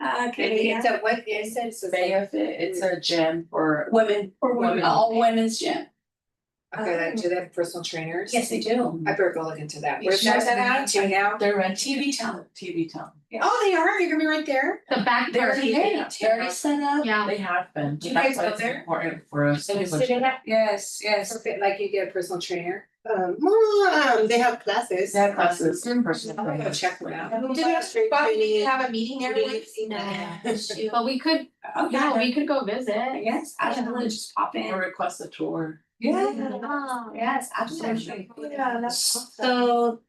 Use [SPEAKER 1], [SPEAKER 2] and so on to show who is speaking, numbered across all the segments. [SPEAKER 1] Uh, can we
[SPEAKER 2] It's
[SPEAKER 1] have
[SPEAKER 2] a, what is it? It's a-
[SPEAKER 3] Bayfit, it's a gym for,
[SPEAKER 1] women,
[SPEAKER 2] For women.
[SPEAKER 1] all women's gym?
[SPEAKER 2] Okay, that, do they have personal trainers?
[SPEAKER 1] Yes, they do.
[SPEAKER 2] I better go look into that.
[SPEAKER 1] You
[SPEAKER 2] Where's
[SPEAKER 1] should.
[SPEAKER 2] that at? Do you know?
[SPEAKER 3] they're on
[SPEAKER 1] TV town.
[SPEAKER 3] TV town.
[SPEAKER 2] Oh, they are, you're gonna be right there.
[SPEAKER 4] The back
[SPEAKER 3] They're
[SPEAKER 4] part,
[SPEAKER 3] already
[SPEAKER 1] Hey,
[SPEAKER 3] there.
[SPEAKER 1] they're already set up.
[SPEAKER 4] yeah,
[SPEAKER 3] They have been.
[SPEAKER 2] Do you
[SPEAKER 3] That's
[SPEAKER 2] guys
[SPEAKER 3] why
[SPEAKER 2] go
[SPEAKER 3] it's
[SPEAKER 2] there?
[SPEAKER 3] Important for us. to push it.
[SPEAKER 1] Yes, yes.
[SPEAKER 2] Perfect, like you get a personal trainer.
[SPEAKER 5] Um, well, um, they have classes.
[SPEAKER 3] They have classes. in person.
[SPEAKER 2] I'm gonna go check them out.
[SPEAKER 5] Did I straight
[SPEAKER 1] But
[SPEAKER 5] training?
[SPEAKER 1] have a meeting
[SPEAKER 5] every Wednesday night.
[SPEAKER 4] but we could,
[SPEAKER 1] Oh,
[SPEAKER 4] yeah,
[SPEAKER 1] yeah,
[SPEAKER 4] we could go visit.
[SPEAKER 1] yes, absolutely, just pop
[SPEAKER 3] Or
[SPEAKER 1] in.
[SPEAKER 3] request a tour.
[SPEAKER 1] Yeah.
[SPEAKER 4] Oh.
[SPEAKER 1] Yes, absolutely.
[SPEAKER 2] Yeah,
[SPEAKER 5] that's awesome.
[SPEAKER 1] So,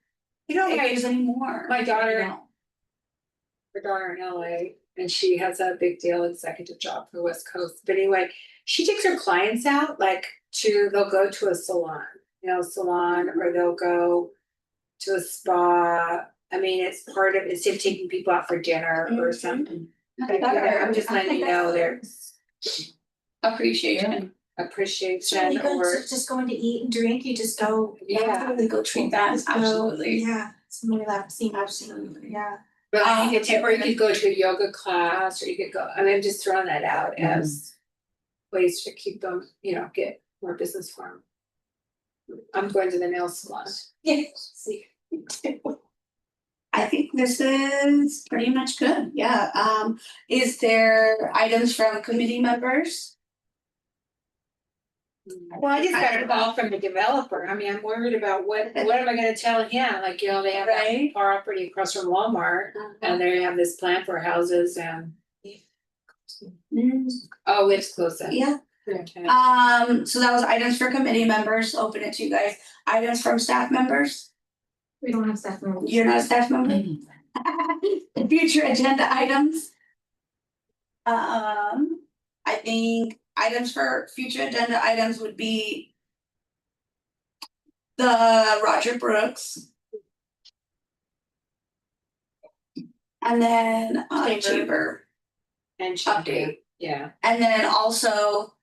[SPEAKER 2] You know,
[SPEAKER 1] if
[SPEAKER 2] my,
[SPEAKER 1] there's any more.
[SPEAKER 2] My daughter-
[SPEAKER 1] you know.
[SPEAKER 2] her daughter in LA and she has a big deal executive job for the West Coast. But anyway, she takes her clients out, like to, they'll go to a salon, you know, salon, or they'll go to a spa. I mean, it's part of, instead of taking people out for dinner or something. But yeah, I'm just letting you know there's
[SPEAKER 1] Appreciation.
[SPEAKER 2] appreciation
[SPEAKER 1] You go
[SPEAKER 2] or,
[SPEAKER 1] to- just going to eat and drink, you just go.
[SPEAKER 2] Yeah.
[SPEAKER 1] Totally go treat that,
[SPEAKER 4] Just go,
[SPEAKER 1] absolutely.
[SPEAKER 4] Yeah, it's more relaxing,
[SPEAKER 1] Absolutely.
[SPEAKER 4] yeah.
[SPEAKER 2] but I think it's, or you could go to a yoga class, or you could go, I mean, I'm just throwing that out as ways to keep them, you know, get more business for 'em. I'm going to the nail salon.
[SPEAKER 1] I think this is pretty much good, yeah, um, is there items from committee members?
[SPEAKER 2] Well, I just got
[SPEAKER 1] I-
[SPEAKER 2] a call from the developer, I mean, I'm worried about what, what am I gonna tell him, like, you know, they have that
[SPEAKER 1] Right.
[SPEAKER 2] property across from Walmart, and they have this plan for houses and,
[SPEAKER 1] Mm,
[SPEAKER 2] oh, it's close then.
[SPEAKER 1] Yeah,
[SPEAKER 2] Okay.
[SPEAKER 1] um, so that was items for committee members, open it to you guys, items from staff members,
[SPEAKER 4] We don't have staff members.
[SPEAKER 1] you're not a staff
[SPEAKER 2] Mm-hmm.
[SPEAKER 1] member? Future agenda items. Um, I think items for future agenda items would be. The Roger Brooks. And then uh
[SPEAKER 2] Chamber.
[SPEAKER 1] chamber,
[SPEAKER 2] And Chapin,
[SPEAKER 1] Update.
[SPEAKER 2] yeah.
[SPEAKER 1] and then also.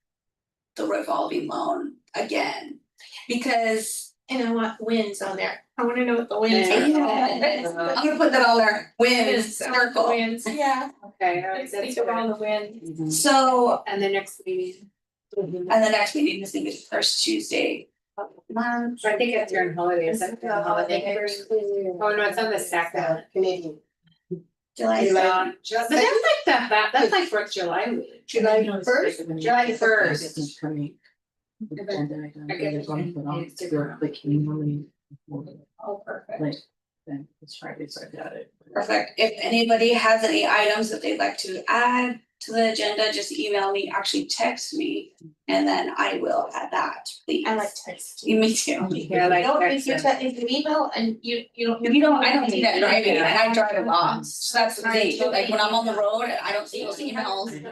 [SPEAKER 1] The revolving loan again, because
[SPEAKER 5] And I want wins on there. I wanna know what the wins
[SPEAKER 2] Yeah.
[SPEAKER 5] are.
[SPEAKER 2] Yeah.
[SPEAKER 1] I'm gonna put that on there, wins, circle.
[SPEAKER 5] Wins, yeah.
[SPEAKER 2] Okay, all right,
[SPEAKER 5] Let's
[SPEAKER 2] that's
[SPEAKER 5] think
[SPEAKER 2] good.
[SPEAKER 5] of all the wins.
[SPEAKER 1] So
[SPEAKER 2] And the next meeting,
[SPEAKER 1] And the next meeting, I think is first Tuesday of the month.
[SPEAKER 2] so I think it's during holidays, I think the holiday. Oh, no, it's on the second.
[SPEAKER 5] Canadian.
[SPEAKER 1] July.
[SPEAKER 2] So, um, But that's like the, fa- that's like Fourth of July week.
[SPEAKER 3] July
[SPEAKER 2] first? July first.
[SPEAKER 3] Coming. Agenda item,
[SPEAKER 2] I guess
[SPEAKER 3] they're going to put on
[SPEAKER 2] it's
[SPEAKER 3] their,
[SPEAKER 2] different.
[SPEAKER 3] like, community report,
[SPEAKER 1] Oh, perfect.
[SPEAKER 3] like, then it's Friday, so I got it.
[SPEAKER 1] Perfect. If anybody has any items that they'd like to add to the agenda, just email me, actually text me, and then I will add that, please.
[SPEAKER 5] I like texting.
[SPEAKER 1] Me too.
[SPEAKER 2] Yeah, like.
[SPEAKER 5] No, if
[SPEAKER 2] that's
[SPEAKER 5] you
[SPEAKER 2] it.
[SPEAKER 5] te- if you email and you you don't.
[SPEAKER 1] You know, I don't do that driving, and
[SPEAKER 2] Yeah.
[SPEAKER 1] I drive a lot, so that's the thing, like when I'm on the road, I don't see those emails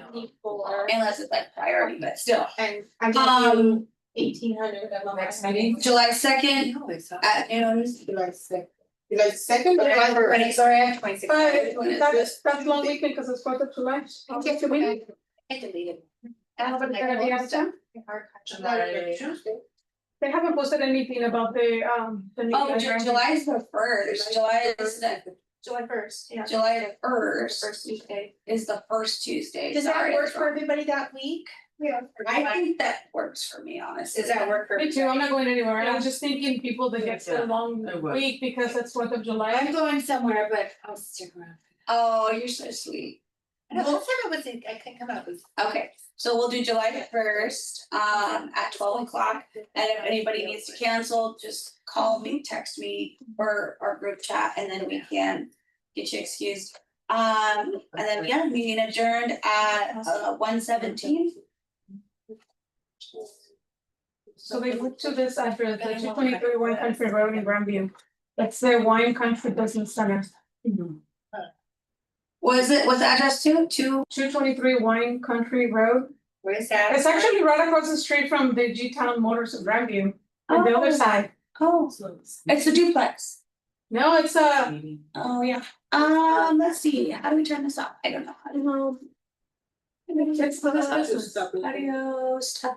[SPEAKER 5] Four.
[SPEAKER 1] unless it's like priority, but still.
[SPEAKER 5] And I give you
[SPEAKER 1] Um,
[SPEAKER 5] eighteen hundred of them.
[SPEAKER 3] Next meeting?
[SPEAKER 1] July second
[SPEAKER 2] No, it's not.
[SPEAKER 1] at noon,
[SPEAKER 5] July second. July second or July first?
[SPEAKER 2] Twenty, sorry, I have twenty six.
[SPEAKER 1] But-
[SPEAKER 6] That's, that's one weekend because it's Fourth of July.
[SPEAKER 5] Okay, so we. I deleted.
[SPEAKER 1] everybody's gonna be on time?
[SPEAKER 5] July Tuesday.
[SPEAKER 6] They haven't posted anything about the, um, the new.
[SPEAKER 1] Oh, Ju- July is the first, July is the
[SPEAKER 5] July first, yeah.
[SPEAKER 1] July the first
[SPEAKER 5] First Tuesday.
[SPEAKER 1] is the first Tuesday.
[SPEAKER 5] Does that
[SPEAKER 1] Sorry,
[SPEAKER 5] work
[SPEAKER 1] that's
[SPEAKER 5] for
[SPEAKER 1] wrong.
[SPEAKER 5] everybody that week?
[SPEAKER 6] Yeah.
[SPEAKER 1] I think that works for me, honestly.
[SPEAKER 2] Does that work for?
[SPEAKER 6] Me too, I'm not going anywhere, I was just thinking people that get
[SPEAKER 3] Yeah,
[SPEAKER 6] so long
[SPEAKER 3] I would.
[SPEAKER 6] week because it's Fourth of
[SPEAKER 2] I'm
[SPEAKER 6] July.
[SPEAKER 2] going somewhere, but I'll stick around.
[SPEAKER 1] Oh, you're so sweet.
[SPEAKER 2] No, last time I was in, I couldn't come up with.
[SPEAKER 1] Okay, so we'll do July the first, um, at twelve o'clock. And if anybody needs to cancel, just call me, text me, or our group chat, and then we can get you excused. Um, and then, yeah, meeting adjourned at, uh, one seventeen.
[SPEAKER 6] So they look to this address, the two twenty three Wine Country Road in Grandview. That's the Wine Country Business Center,
[SPEAKER 1] Was it, was the address two, two?
[SPEAKER 6] two twenty three Wine Country Road.
[SPEAKER 2] Where is that?
[SPEAKER 6] It's actually right across the street from the G Town Motors of Grandview, on the other side.
[SPEAKER 1] Oh, it's the duplex.
[SPEAKER 6] No, it's a,
[SPEAKER 1] Oh, yeah. Um, let's see, how do we turn this up? I don't know. I don't know. It's the
[SPEAKER 2] Stop it.
[SPEAKER 1] Adios, ta-